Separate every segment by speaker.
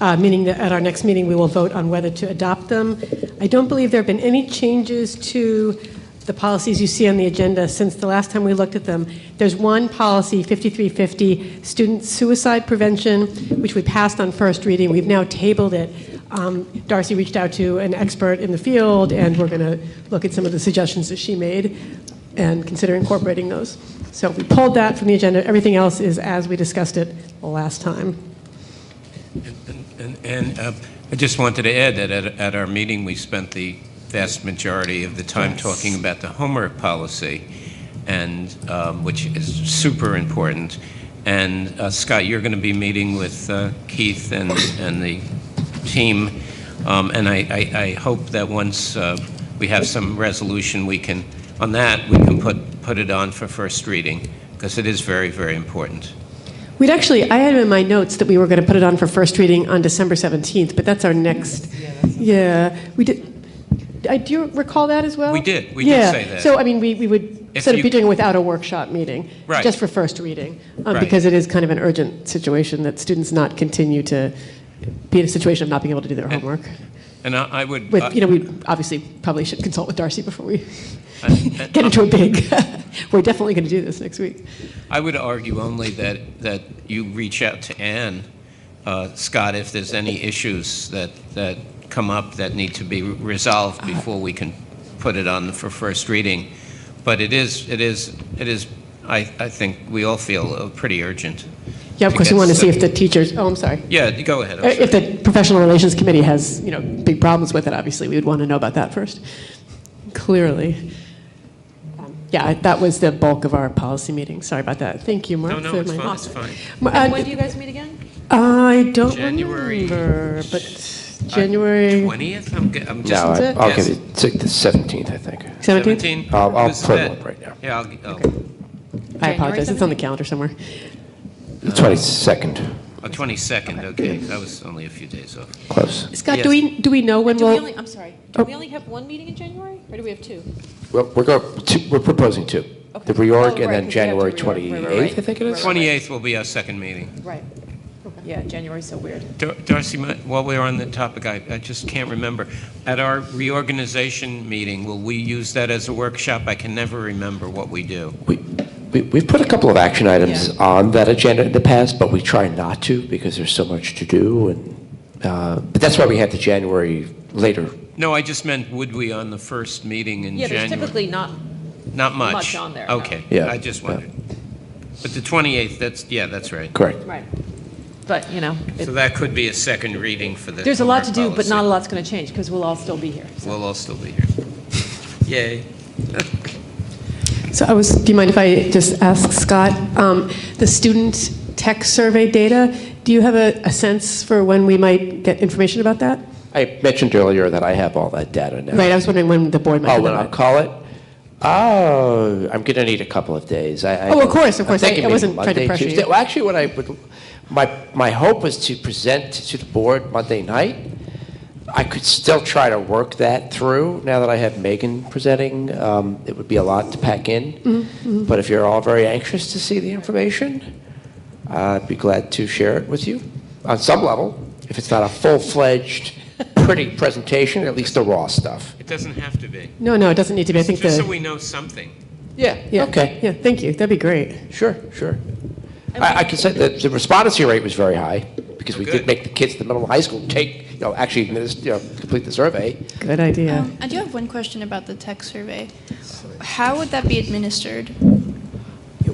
Speaker 1: uh, meaning that at our next meeting, we will vote on whether to adopt them. I don't believe there have been any changes to the policies you see on the agenda since the last time we looked at them. There's one policy, 5350, student suicide prevention, which we passed on first reading. We've now tabled it. Um, Darcy reached out to an expert in the field, and we're going to look at some of the suggestions that she made and consider incorporating those. So we pulled that from the agenda. Everything else is as we discussed it last time.
Speaker 2: And- And uh, I just wanted to add that at at our meeting, we spent the vast majority of the time talking about the homework policy, and, um, which is super important. And uh, Scott, you're going to be meeting with uh, Keith and and the team, Um, and I- I I hope that once uh, we have some resolution, we can, on that, we can put put it on for first reading, because it is very, very important.
Speaker 1: We'd actually, I had in my notes that we were going to put it on for first reading on December 17th, but that's our next, yeah, we did, I- do you recall that as well?
Speaker 2: We did. We did
Speaker 1: Yeah.
Speaker 2: say that.
Speaker 1: So, I mean, we we would,
Speaker 2: If
Speaker 1: instead of
Speaker 2: you-
Speaker 1: be doing it without a workshop meeting,
Speaker 2: Right.
Speaker 1: just for first reading, um,
Speaker 2: Right.
Speaker 1: because it is kind of an urgent situation that students not continue to be in a situation of not being able to do their homework.
Speaker 2: And I I would... uh,
Speaker 1: With, you know, we obviously probably should consult with Darcy before we
Speaker 2: And- and-
Speaker 1: get into a big, we're definitely going to do this next week.
Speaker 2: I would argue only that, that you reach out to Ann, uh, Scott, if there's any issues that, that come up that need to be resolved
Speaker 1: Uh-huh.
Speaker 2: before we can put it on for first reading. But it is, it is, it is, I, I think we all feel uh, pretty urgent.
Speaker 1: Yeah, of
Speaker 2: to
Speaker 1: course, we
Speaker 2: get
Speaker 1: want to see
Speaker 2: stuff-
Speaker 1: if the teachers, oh, I'm sorry.
Speaker 2: Yeah, go ahead. I'm
Speaker 1: Uh,
Speaker 2: sorry.
Speaker 1: If the Professional Relations Committee has, you know, big problems with it, obviously, we would want to know about that first, clearly. Um, Yeah, I- that was the bulk of our policy meeting, sorry about that. Thank you, Mark.
Speaker 2: No, no,
Speaker 1: for
Speaker 2: it's
Speaker 1: my
Speaker 2: fine,
Speaker 1: loss.
Speaker 2: it's fine.
Speaker 1: Ma- uh,
Speaker 3: When do you guys meet again?
Speaker 1: I don't
Speaker 2: January-
Speaker 1: remember, but January
Speaker 2: 20th? I'm, ge- I'm
Speaker 4: No,
Speaker 2: just.
Speaker 4: I-
Speaker 1: it?
Speaker 4: I'll
Speaker 2: Yes.
Speaker 4: give you, it's like the 17th, I think.
Speaker 1: 17th?
Speaker 4: I'll- I'll
Speaker 2: Who's
Speaker 4: put it
Speaker 2: that?
Speaker 4: up right now.
Speaker 2: Yeah, I'll, g- oh,
Speaker 1: I
Speaker 3: January
Speaker 1: apologize, it's on the calendar somewhere.
Speaker 4: The 22nd,
Speaker 2: oh, 22nd, okay. That was only a few days off.
Speaker 4: close.
Speaker 1: Scott,
Speaker 2: Yes.
Speaker 1: do we, do we know when
Speaker 3: Do we
Speaker 1: we'll?
Speaker 3: only, I'm sorry, do we only have one meeting in January, or do we have two?
Speaker 4: Well, we're going, two- we're proposing two. The
Speaker 3: Okay. Oh,
Speaker 4: reorg
Speaker 3: right, 'cause we
Speaker 4: and then
Speaker 3: have to
Speaker 4: January
Speaker 3: reorg. Right, right, right.
Speaker 4: 28th, I think it is.
Speaker 2: 28th will be our second meeting.
Speaker 3: Right. Yeah, January's so weird.
Speaker 2: Dar- Darcy, my- while we're on the topic, I, I just can't remember. At our reorganization meeting, will we use that as a workshop? I can never remember what we do.
Speaker 4: We- we- We've put a couple of action items
Speaker 3: Yeah.
Speaker 4: on that agenda in the past, but we try not to because there's so much to do. and uh, But that's why we had the January later.
Speaker 2: No, I just meant would we on the first meeting in
Speaker 3: Yeah,
Speaker 2: January?
Speaker 3: there's typically not,
Speaker 2: Not much.
Speaker 3: much on there, no.
Speaker 2: Okay.
Speaker 4: Yeah,
Speaker 2: I just
Speaker 4: yeah.
Speaker 2: wondered. But the 28th, that's, yeah, that's right.
Speaker 4: Correct.
Speaker 3: right, but, you know, it-
Speaker 2: So that could be a second reading for the.
Speaker 3: there's a lot to do,
Speaker 2: homework
Speaker 3: but not a
Speaker 2: policy.
Speaker 3: lot's going to change, because we'll all still be here.
Speaker 2: We'll all still be here. Yay.
Speaker 1: So I was, do you mind if I just ask Scott, um, the student tech survey data, do you have a a sense for when we might get information about that?
Speaker 4: I mentioned earlier that I have all that data now.
Speaker 1: Right, I was wondering when the board might
Speaker 4: Oh,
Speaker 1: have
Speaker 4: when I'll
Speaker 1: that.
Speaker 4: call it? Oh, I'm going to need a couple of days. I, I
Speaker 1: Oh, of course, of course.
Speaker 4: I'm thinking
Speaker 1: I- I
Speaker 4: maybe
Speaker 1: wasn't trying to
Speaker 4: Monday,
Speaker 1: pressure you.
Speaker 4: Tuesday. Well, actually, what I would, my, my hope was to present to the board Monday night. I could still try to work that through now that I have Megan presenting. Um, it would be a lot to pack
Speaker 1: Mm-hmm,
Speaker 4: in. But if you're all very anxious to see the information, I'd be glad to share it with you on some level. If it's not a full fledged, pretty presentation, at least the raw stuff.
Speaker 2: It doesn't have to be.
Speaker 1: No, no, it doesn't need to be, I think
Speaker 2: Just so
Speaker 1: the,
Speaker 2: we know something.
Speaker 4: Yeah,
Speaker 1: yeah,
Speaker 4: okay.
Speaker 1: yeah, thank you, that'd be great.
Speaker 4: Sure, sure. I, I can say that the response rate was very high, because we
Speaker 2: Good.
Speaker 4: did make the kids in the middle of high school take, you know, actually, adminis- you know, complete the survey.
Speaker 1: Good idea.
Speaker 5: Um, I do have one question about the tech survey. How would that be administered?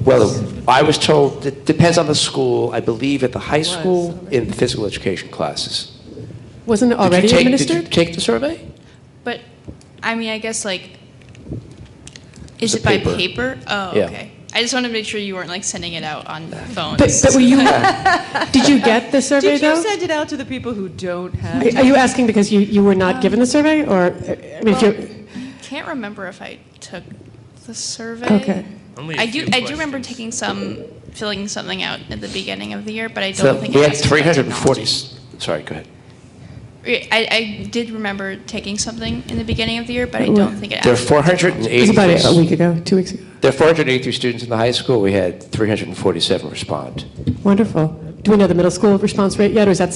Speaker 4: Well, I was told, it depends on the school, I believe at the high school, in the physical education classes.
Speaker 1: Wasn't it
Speaker 4: Did you
Speaker 1: already
Speaker 4: take- Did
Speaker 1: administered?
Speaker 4: you take the survey?
Speaker 5: But, I mean, I guess like, is
Speaker 4: It's a
Speaker 5: it by
Speaker 4: paper.
Speaker 5: paper? Oh,
Speaker 4: Yeah.
Speaker 5: okay. I just wanted to make sure you weren't like sending it out on phones.
Speaker 1: But, but were you, did you get the survey
Speaker 3: Did you
Speaker 1: though?
Speaker 3: send it out to the people who don't have?
Speaker 1: Are are you asking because you, you were not given the survey, or, I mean, if
Speaker 5: Well,
Speaker 1: you're,
Speaker 4: Uh,
Speaker 5: Can't remember if I took the survey.
Speaker 1: Okay.
Speaker 2: Only a
Speaker 5: I
Speaker 2: few
Speaker 5: do, I do remember
Speaker 2: questions.
Speaker 5: taking some, filling something out at the beginning of the year, but I
Speaker 4: So
Speaker 5: don't think.
Speaker 4: we
Speaker 5: it
Speaker 4: had
Speaker 5: asked about
Speaker 4: 340,
Speaker 5: technology.
Speaker 4: s- sorry, go ahead.
Speaker 5: I, I did remember taking something in the beginning of the year, but I
Speaker 1: Well,
Speaker 5: don't think it
Speaker 4: There are
Speaker 5: asked.
Speaker 1: it was about a- a
Speaker 4: 483,
Speaker 1: week ago, two weeks ago?
Speaker 4: there are 483 students in the high school, we had 347 respond.
Speaker 1: Wonderful. Do we know the middle school response rate yet, or is that